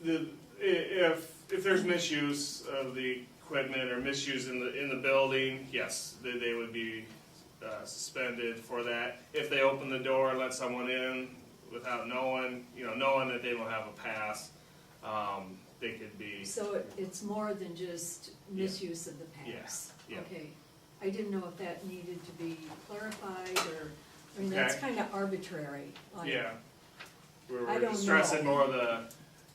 the, i- if, if there's misuse of the equipment or misuse in the, in the building, yes, they, they would be uh, suspended for that. If they open the door and let someone in without knowing, you know, knowing that they don't have a pass, um, they could be, So it- it's more than just Yeah. misuse of the pass? Yeah, yeah. Okay, I didn't know if that needed to be clarified, or, I mean, that's Okay. kind of arbitrary. like- yeah. We're I we're don't just stressing know. Mm, more the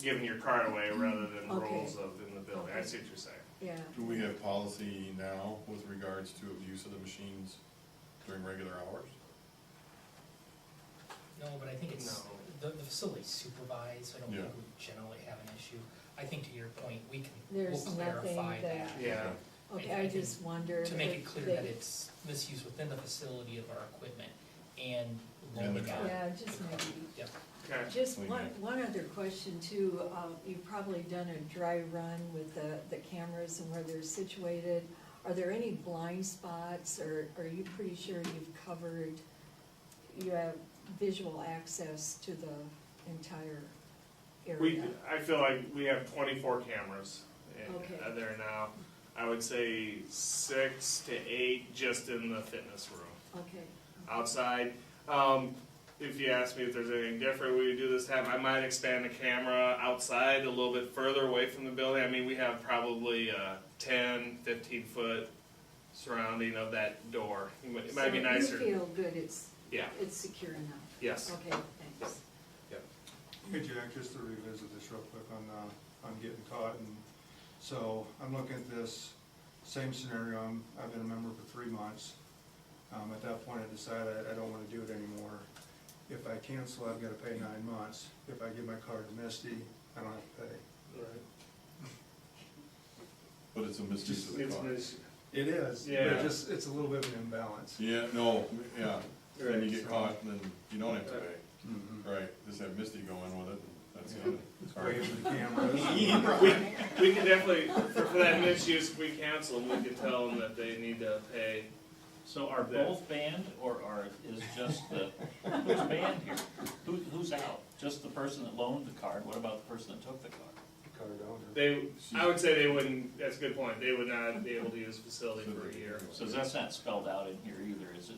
giving your card away rather than Okay. rules of in the building. I see what you're saying. Yeah, Do we have policy now with regards to abuse of the machines during regular hours? No, but I think it's, No. the, the facility's supervised, so I don't think Yeah. we generally have an issue. I think to your point, we can, we'll There's nothing clarify that- that, Yeah, okay, I just wondered. to make if it clear they- that it's misuse within the facility of our equipment and And the loaning out. car. Yeah, just maybe. Yep. okay. Just Clean one, up. one other question too, um, you've probably done a dry run with the, the cameras and where they're situated. Are there any blind spots, or are you pretty sure you've covered, you have visual access to the entire We, area? I feel like we have twenty-four cameras in, Okay. uh, there now. I would say six to eight just in the fitness room, Okay, outside. Um, if you ask me if there's anything different we would do this time, I might expand the camera outside a little bit further away from the building. I mean, we have probably a ten, fifteen-foot surrounding of that door. It might- It might be So you nicer, feel good, it's, yeah, it's secure enough? yes. Okay, thanks. Hey Jack, just to revisit this real quick on, uh, on getting caught and, so I'm looking at this same scenario, I'm, I've been a member for three months. Um, at that point I decided I, I don't wanna do it anymore. If I cancel, I've gotta pay nine months. If I give my card to Misty, I don't have to pay. But it's a misuse of the It's car. mis- It is, but Yeah. it just, it's a little bit of an imbalance. Yeah, no, yeah, then you get Right. caught and then you don't have to pay. Mhm. Right, just have Misty go in with it, that's kinda, it's hard. Wave to the cameras. We, we can definitely, for, for that misuse, if we cancel them, we can tell them that they need to pay. So are That- both banned, or are, is just the, who's banned here? Who, who's out? Just the person that loaned the card, what about the person that took the card? Card owner. They, I would say they wouldn't, that's a good point, they would not be able to use the facility for a year. So that's not spelled out in here either, is it?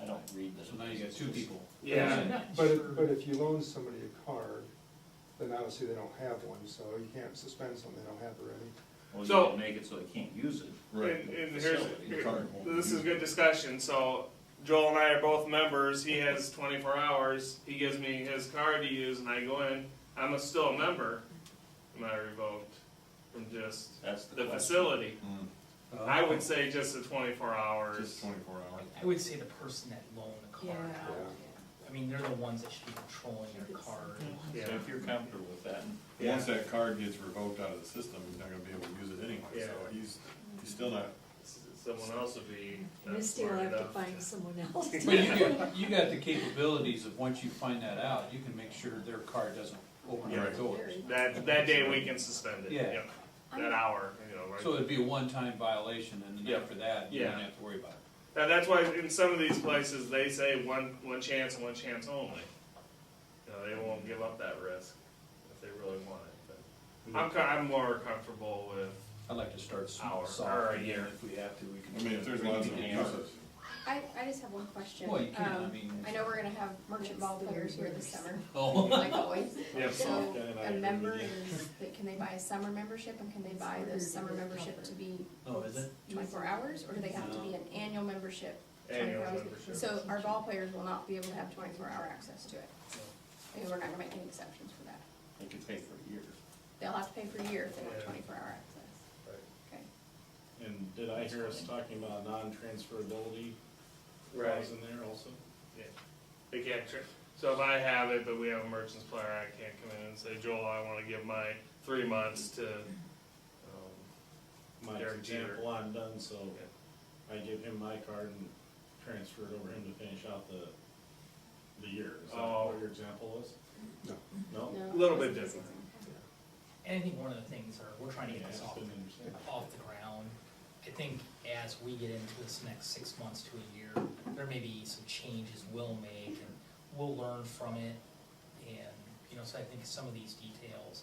I don't read that. So now you got two people. Yeah, But, but if you loan somebody a card, then obviously they don't have one, so you can't suspend something they don't have already. Well, you So- can make it so they can't use it. and, Right, and here's, the car won't. this is good discussion, so Joel and I are both members, he has twenty-four hours, he gives me his card to use and I go in, I'm a- still a member. Am I revoked from just That's the the question. facility? Mm, I would say just the twenty-four hours. Just twenty-four hours. I would say the person that loaned the Yeah, card out, I mean, they're the ones that should be controlling your card. Yeah. So if you're comfortable with that, Once that card gets revoked out of the system, he's not gonna be able to use it anyway, so Yeah. he's, he's still not, Someone else would be. yeah. Misty will have to find someone else. But you got, you got the capabilities of, once you find that out, you can make sure their car doesn't open our Right. doors. That, that day we can suspend it, Yeah. yeah, that hour, you know, right? So it'd be a one-time violation, and then Yeah. after that, you don't Yeah. have to worry about it. Now, that's why in some of these places, they say one, one chance and one chance only. You know, they won't give up that risk if they really want it, Mm-hmm. but I'm, co- I'm more comfortable with, I'd like to start Hour, or small, soft, a and year. then if we have to, we can. I mean, if there's lots of uses. I, I just have one question. Well, you can, I Um, mean- I know we're gonna have merchant ball players here this summer, Oh. like always. yeah, So, Soft guy and I a agree member with is, that- can they buy a summer membership, and can they buy the summer membership to be Oh, is it? twenty-four hours? Or do they have to be an annual membership? 24 annual hours? membership. So our ball players will not be able to have twenty-four hour access to it, because we're not gonna make any exceptions for that. they could pay for a year. They'll have to pay for a year if they want Yeah. twenty-four hour access. Okay. And did I hear us talking about non-transferability Right. clause in there also? They can't, tr- so if I have it, but we have a merchant's player, I can't come in and say, Joel, I wanna give my three months to, um, My Derek Jeter. example, I'm done, so I give him my card and transfer it over him to finish out the, the year. Is that Oh. what your example was? No. No? No, Little bit it's- it's- different. it's- And I think one of the things are, we're trying to Yeah, get I this just off, didn't understand. off the ground. I think as we get into this next six months to a year, there may be some changes we'll make and we'll learn from it. And, you know, so I think some of these details